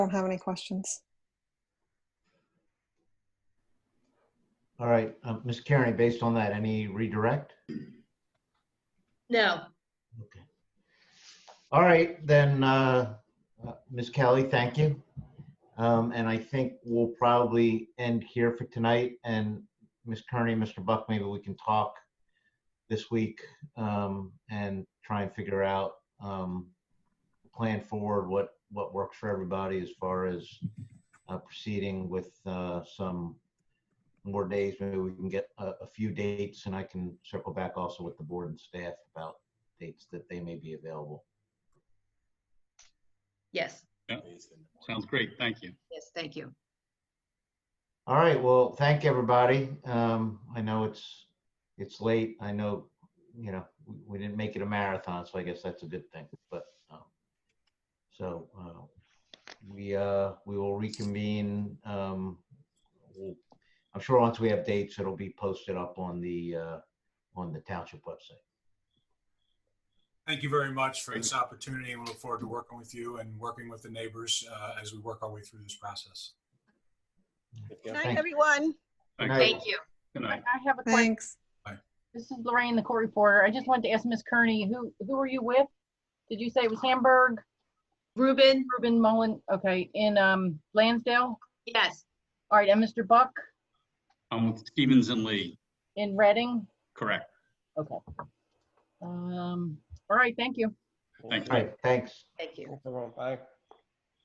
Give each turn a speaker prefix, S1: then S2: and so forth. S1: don't have any questions.
S2: All right, um, Ms. Carney, based on that, any redirect?
S3: No,
S2: Okay. All right, then, uh, uh, Ms. Kelly, thank you. Um, and I think we'll probably end here for tonight, and Ms. Kearney, Mr. Buck, maybe we can talk this week, um, and try and figure out, um, plan forward, what, what works for everybody as far as, uh, proceeding with, uh, some more days, maybe we can get a, a few dates, and I can circle back also with the board and staff about dates that they may be available.
S3: yes,
S4: Sounds great. Thank you.
S3: yes, thank you.
S2: All right, well, thank everybody. Um, I know it's, it's late. I know, you know, we, we didn't make it a marathon, so I guess that's a good thing, but, um, so, uh, we, uh, we will reconvene, um, we'll- I'm sure once we have dates, it'll be posted up on the, uh, on the township website.
S5: Thank you very much for this opportunity. We look forward to working with you and working with the neighbors uh, as we work our way through this process.
S6: Good
S2: Thank
S6: night,
S2: you.
S6: everyone.
S2: Thank you.
S3: Thank you.
S4: Good
S7: I
S4: night.
S7: I have a question.
S1: Thanks.
S7: This is Lorraine, the court reporter. I just wanted to ask Ms. Kearney, who, who are you with? Did you say it was Hamburg,
S3: Ruben,
S7: Reuben Mullen, okay, in um Lansdale?
S3: yes,
S7: All right, and Mr. Buck
S4: I'm with Stevens and Lee.
S7: in Reading?
S4: Correct.
S7: Okay. Um, all right, thank you.
S4: Thank you.
S2: All right, thanks.
S3: thank you.
S6: Thanks, everyone. Bye.